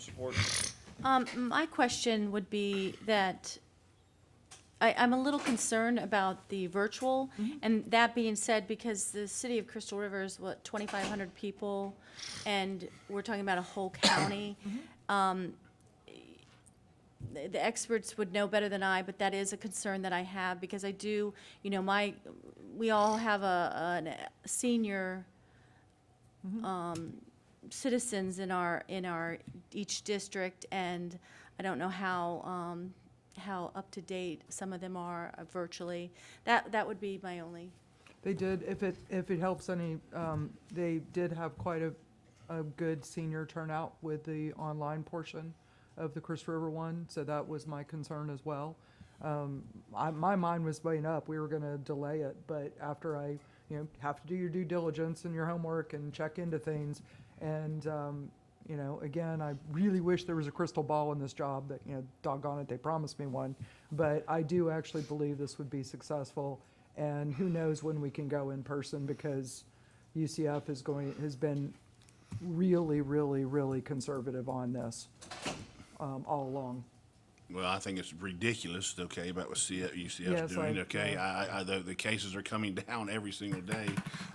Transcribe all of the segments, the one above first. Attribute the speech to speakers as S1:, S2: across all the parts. S1: Support.
S2: Um, my question would be that I, I'm a little concerned about the virtual. And that being said, because the city of Crystal River is what, twenty-five hundred people? And we're talking about a whole county. Um, the the experts would know better than I, but that is a concern that I have because I do, you know, my, we all have a, a senior citizens in our, in our, each district, and I don't know how, um, how up to date some of them are uh, virtually. That, that would be my only,
S3: They did, if it, if it helps any, um, they did have quite a, a good senior turnout with the online portion of the Chris River one, so that was my concern as well. Um, I, my mind was weighing up, we were gonna delay it, but after I, you know, have to do your due diligence and your homework and check into things. And, um, you know, again, I really wish there was a crystal ball in this job that, you know, doggone it, they promised me one. But I do actually believe this would be successful. And who knows when we can go in person because UCF is going, has been really, really, really conservative on this um, all along.
S4: Well, I think it's ridiculous, okay, about what CF
S3: Yeah,
S4: UCF's
S3: it's
S4: doing,
S3: like,
S4: okay? I, I- I, the, the cases are coming down every single day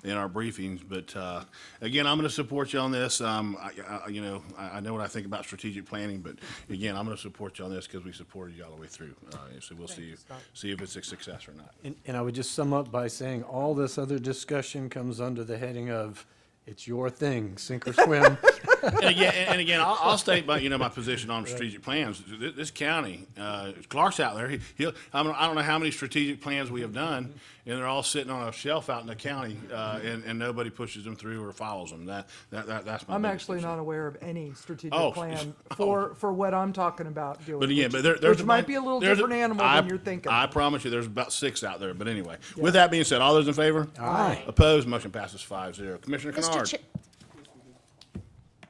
S4: in our briefings, but, uh, again, I'm gonna support you on this. Um, I, I, you know, I, I know what I think about strategic planning, but again, I'm gonna support you on this because we supported you all the way through. Uh, so we'll see, see if it's a success or not.
S5: And, and I would just sum up by saying all this other discussion comes under the heading of, it's your thing, sink or swim.
S4: and again, and, and again, I'll, I'll state my you know my position on strategic plans. This, this county, uh, Clark's out there. He, he'll, I, don't, I don't know how many strategic plans we have done, and they're all sitting on a shelf out in the county, uh, and, and nobody pushes them through or follows them. That, that, that that's my.
S3: I'm
S4: biggest
S3: actually
S4: concern.
S3: not aware of any strategic
S4: Oh,
S3: plan
S4: oh.
S3: for, for what I'm talking about doing.
S4: But again,
S3: which-
S4: but there, there's
S3: Which might be a little
S4: there's
S3: different animal
S4: I-
S3: than you're thinking.
S4: I promise you, there's about six out there. But anyway, with that being said, all those in favor?
S5: Aye.
S4: Opposed? Motion passes five zero. Commissioner Kennard,
S6: Cha-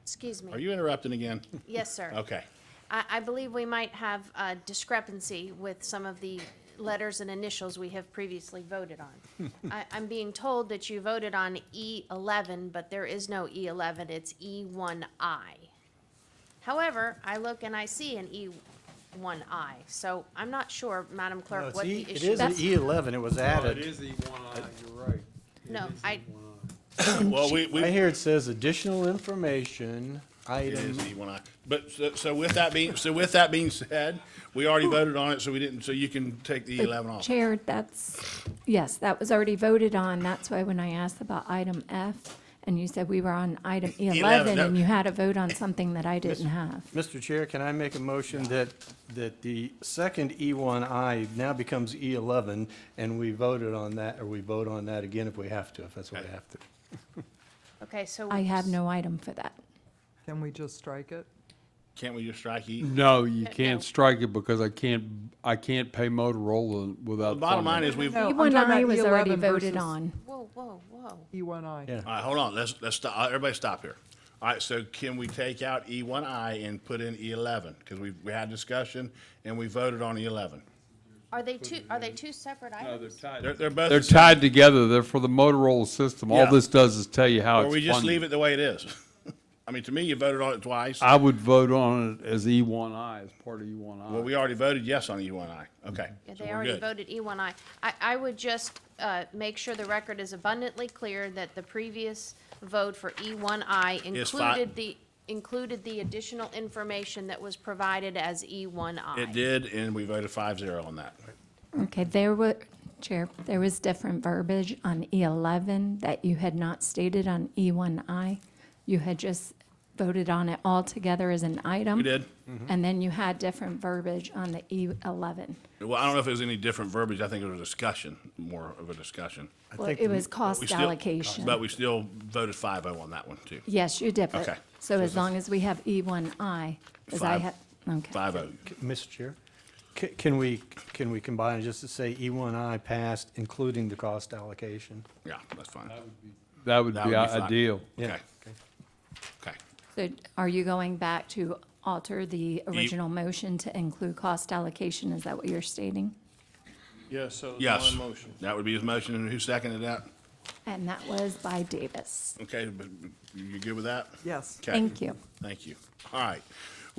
S6: Excuse
S4: are
S6: me.
S4: you interrupting again?
S6: Yes, sir.
S4: Okay.
S6: I, I believe we might have a discrepancy with some of the letters and initials we have previously voted on. I, I'm being told that you voted on E eleven, but there is no E eleven, it's E one I. However, I look and I see an E one I, so I'm not sure, Madam
S5: No,
S6: Clerk,
S5: it's
S6: what
S5: E-
S6: the
S5: It
S6: issue.
S5: is an
S6: That's-
S5: E eleven, it was
S1: It
S5: added.
S1: is the one eye, you're right. It
S6: No,
S1: is the
S6: I-
S1: one eye.
S4: Well, we, we
S5: Right here it says additional information,
S4: It
S5: item,
S7: Mm-hmm.
S4: is E one I. But so, so with that being, so with that being said, we already voted on it, so we didn't, so you can take the E
S8: But
S4: eleven off.
S8: Chair, that's, yes, that was already voted on. That's why when I asked about item F, and you said we were on item
S4: 11,
S8: 11,
S4: no.
S8: and you had a vote on something that I didn't have.
S5: Mr. Chair, can I make a motion that, that the second E1I now becomes E11, and we voted on that, or we vote on that again if we have to, if that's what we have to?
S6: Okay, so.
S8: I have no item for that.
S3: Can we just strike it?
S4: Can't we just strike E?
S7: No, you
S6: no.
S7: can't strike it because I can't, I can't pay Motorola without.
S4: The bottom
S7: funding.
S4: line is we've, all
S3: No, I'm talking
S8: E1I
S3: about
S8: E was already
S3: E11
S8: voted
S3: versus E
S8: on.
S6: Whoa, whoa, whoa.
S3: E1I.
S5: Yeah.
S4: right, hold on, let's, let's stop, uh, everybody stop here. All right, so can we take out E one I and put in E eleven? Because we, we had discussion and we voted on E eleven.
S6: Are they two, are they two separate
S1: No, they're
S6: items?
S1: tied.
S4: They're, they're both.
S7: They're
S4: the same.
S7: tied together. They're for the Motorola system.
S4: Yeah.
S7: All this does is tell you how it's
S4: Or we just
S7: funded.
S4: leave it the way it is. I mean, to me, you voted on it twice.
S7: I would vote on it as E one I, as part of E one I.
S4: Well, we already voted yes on E one I. Okay.
S6: Yeah,
S4: so
S6: They
S4: we're
S6: already
S4: good.
S6: voted E1I. I, I would just uh, make sure the record is abundantly clear that the previous vote for E1I
S4: Is fi-
S6: included the, included the additional information that was provided as E E1I.
S4: It did, and we voted five zero on that.
S8: Okay, there were, Chair, there was different verbiage on E11 that you had not stated on E1I. You had just voted on it all together as an item.
S4: We did.
S8: And then you had different verbiage on the E E11.
S4: Well, I don't know if it was any different verbiage. I think it was a discussion, more of a discussion.
S5: I
S8: Well,
S5: think
S8: it
S5: the-
S8: was
S4: We
S8: cost
S4: still-
S8: allocation.
S4: But we still voted five oh on that one too.
S8: Yes, you did. but-
S4: Okay.
S8: So as long as we have E1I, as I
S4: Five-
S8: had, okay.
S4: Five oh.
S5: Mr. Chair, c- can we, can we combine it just to say E1I passed, including the cost allocation?
S4: Yeah, that's fine.
S7: That would
S4: That
S7: be
S4: would be fine.
S7: ideal.
S4: Okay. Okay.
S8: So are you going back to alter
S4: E
S8: the original motion to include cost allocation? Is that what you're stating?
S1: Yeah, so it's
S4: Yes.
S1: my motion.
S4: That would be his motion. And who seconded that?
S8: And that was by Davis.
S4: Okay, but you good with that?
S3: Yes.
S4: Okay.
S8: Thank you.
S4: Thank you. All right.